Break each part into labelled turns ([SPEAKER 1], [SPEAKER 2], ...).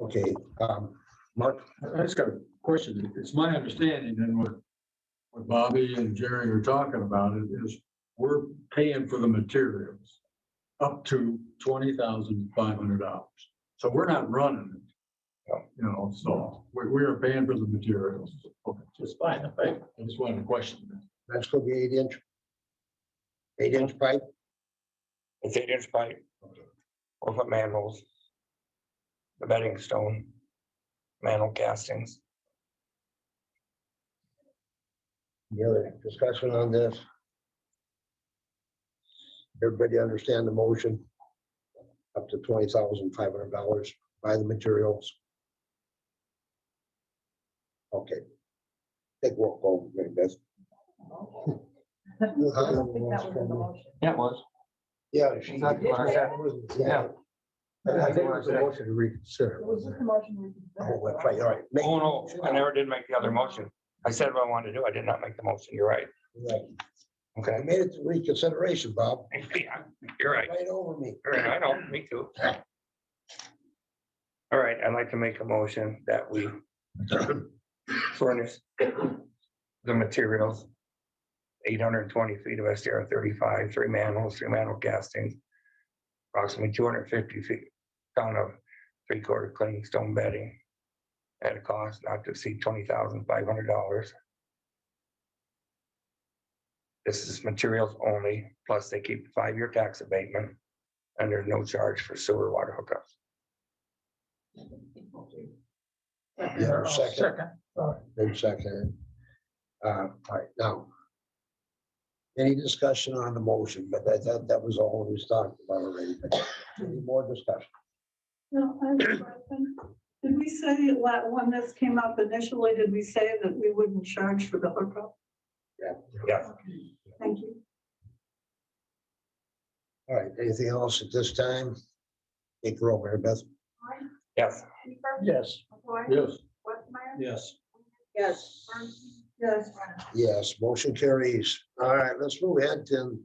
[SPEAKER 1] Okay, um, Mark,
[SPEAKER 2] I just got a question. It's my understanding and what, what Bobby and Jerry are talking about it is we're paying for the materials up to twenty thousand five hundred dollars. So we're not running it. You know, so we, we are paying for the materials. Just fine, I think. I just wanted to question that.
[SPEAKER 1] that's gonna be eight inch. Eight inch pipe,
[SPEAKER 3] It's eight inch pipe. Four foot manholes. The bedding stone. Manhole castings.
[SPEAKER 1] the other discussion on this. Everybody understand the motion? Up to twenty thousand five hundred dollars, buy the materials. Okay. Take roll call, maybe that's.
[SPEAKER 4] I don't think that was in the motion.
[SPEAKER 5] Yeah, it was.
[SPEAKER 1] Yeah, she.
[SPEAKER 5] Not the last half.
[SPEAKER 1] Yeah. I think it was a motion to reconsider.
[SPEAKER 4] It was just the motion. we
[SPEAKER 1] Oh,
[SPEAKER 4] considered.
[SPEAKER 1] that's right, all right. Make-
[SPEAKER 3] Oh, no, I never did make the other motion. I said what I wanted to do. I did not make the motion. You're right.
[SPEAKER 1] Right. I
[SPEAKER 3] Okay.
[SPEAKER 1] made it to reconsideration, Bob.
[SPEAKER 3] Yeah, You're right.
[SPEAKER 1] Right over me.
[SPEAKER 3] All right, I know, me too. All right, I'd like to make a motion that we furnish the materials. Eight hundred and twenty feet of SDR thirty-five, three manholes, three manhole castings. Approximately two hundred and fifty feet, ton of three-quarter clean stone bedding. At a cost not to exceed twenty thousand five hundred dollars. This is materials only, plus they keep five-year tax abatement and there's no charge for sewer water hookups.
[SPEAKER 1] Yeah, second. Then second. Uh, all right, now. Any discussion on the motion, but that, that, that was all we was talking about already. but Any more discussion?
[SPEAKER 6] No, I have a question. Did we say, la- when this came up initially, did we say that we wouldn't charge for the hookup?
[SPEAKER 3] Yeah.
[SPEAKER 6] Thank you.
[SPEAKER 1] All right, anything else at this time? Take roll, Mary Beth.
[SPEAKER 3] Yes,
[SPEAKER 4] Schaefer,
[SPEAKER 2] Yes.
[SPEAKER 4] McCoy,
[SPEAKER 2] Yes.
[SPEAKER 4] Westmeyer,
[SPEAKER 2] Yes.
[SPEAKER 4] Yes. Bernstein,
[SPEAKER 6] Yes,
[SPEAKER 4] Brennan.
[SPEAKER 1] Yes, motion carries. All right, let's move ahead to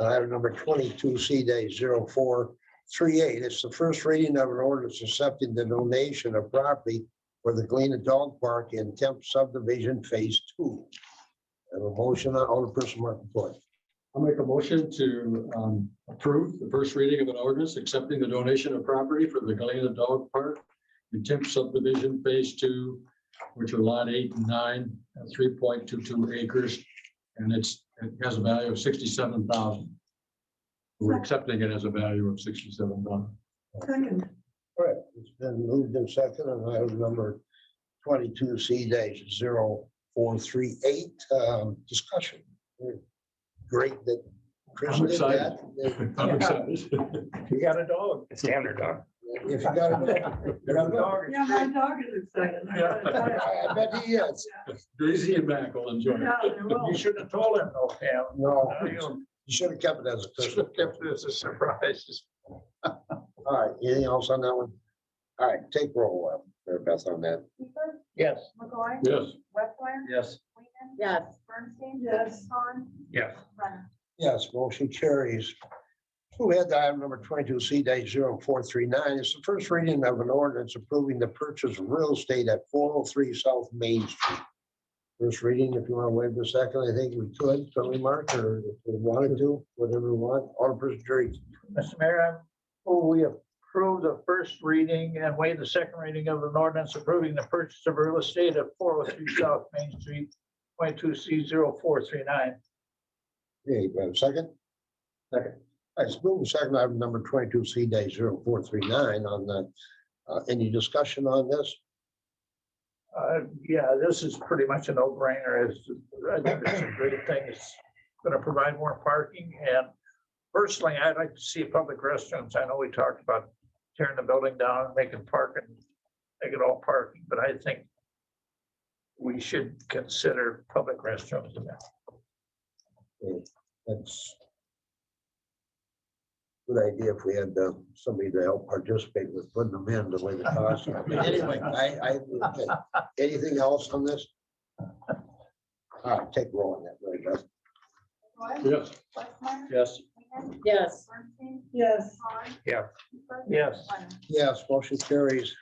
[SPEAKER 1] uh, item number twenty-two, C day zero four three eight. It's the first reading of an ordinance accepting the donation of property for the Galena Dog Park in Temp subdivision phase two. And a motion, uh, Alderperson Martin Ford.
[SPEAKER 2] I'll make a motion to um, approve the first reading of an ordinance accepting the donation of property for the Galena Dog Park in Temp subdivision phase two, which are lot eight and nine, three point two two acres. And it's, it has a value of sixty-seven thousand. We're accepting it as a value of sixty-seven thousand.
[SPEAKER 6] second.
[SPEAKER 1] All right, it's been moved in second on item number twenty-two, C dash zero four three eight, um, discussion. Great that Chris
[SPEAKER 2] I'm
[SPEAKER 1] did that.
[SPEAKER 2] I'm excited.
[SPEAKER 5] You got a dog.
[SPEAKER 3] it's standard, dog.
[SPEAKER 1] If you got it.
[SPEAKER 5] You got a dog.
[SPEAKER 6] Yeah, my dog is excited. I got a dog.
[SPEAKER 1] I bet he is.
[SPEAKER 2] Daisy and Mac will enjoy it.
[SPEAKER 6] Yeah, I will.
[SPEAKER 5] You shouldn't have told him, though, Pam.
[SPEAKER 1] No,
[SPEAKER 5] Now you
[SPEAKER 1] you should have kept it as a
[SPEAKER 5] should have
[SPEAKER 1] personal.
[SPEAKER 5] kept this a surprise.
[SPEAKER 1] All right, anything else on that one? All right, take roll, uh, Mary Beth, on that.
[SPEAKER 4] Schaefer,
[SPEAKER 5] Yes.
[SPEAKER 4] McCoy,
[SPEAKER 2] Yes.
[SPEAKER 4] Westmeyer,
[SPEAKER 5] Yes.
[SPEAKER 4] Weenan.
[SPEAKER 7] Yes.
[SPEAKER 4] Bernstein,
[SPEAKER 6] Yes.
[SPEAKER 4] Vaughn,
[SPEAKER 3] Yes.
[SPEAKER 4] Brennan.
[SPEAKER 1] Yes, motion carries. Who had item number twenty-two C dash zero four three nine? It's the first reading of an ordinance approving the purchase of real estate at four oh three South Main Street. First reading, if you want to wait a second, I think we could, so we mark, or if we wanted to, whatever we want, Alderperson Jerry.
[SPEAKER 5] Mr. Mayor, I move we approve the first reading and waive the second reading of an ordinance approving the purchase of real estate at four oh three South Main Street, twenty-two C 439
[SPEAKER 1] Hey, you have a second? Second. All right, so move to second item number twenty-two C dash zero four three nine on the, uh, any discussion on this?
[SPEAKER 5] Uh, yeah, this is pretty much a no-brainer. It's, I think it's a great thing. It's gonna provide more parking and personally, I'd like to see public restrooms. I know we talked about tearing the building down and making parking, make it all parking, but I think we should consider public restrooms. in that.
[SPEAKER 1] That's. Good idea if we had uh, somebody to help participate with putting them in the way the cost. I mean, Anyway, I, I, okay. anything else on this? All right, take roll on that, Mary Beth.
[SPEAKER 4] McCoy,
[SPEAKER 2] Yes.
[SPEAKER 4] Westmeyer,
[SPEAKER 2] Yes.
[SPEAKER 4] Weenan,
[SPEAKER 7] Yes.
[SPEAKER 4] Bernstein,
[SPEAKER 6] Yes,
[SPEAKER 4] Vaughn.
[SPEAKER 3] Yeah.
[SPEAKER 4] Schaefer,
[SPEAKER 5] Yes.
[SPEAKER 4] Brennan.
[SPEAKER 1] Yes, motion carries.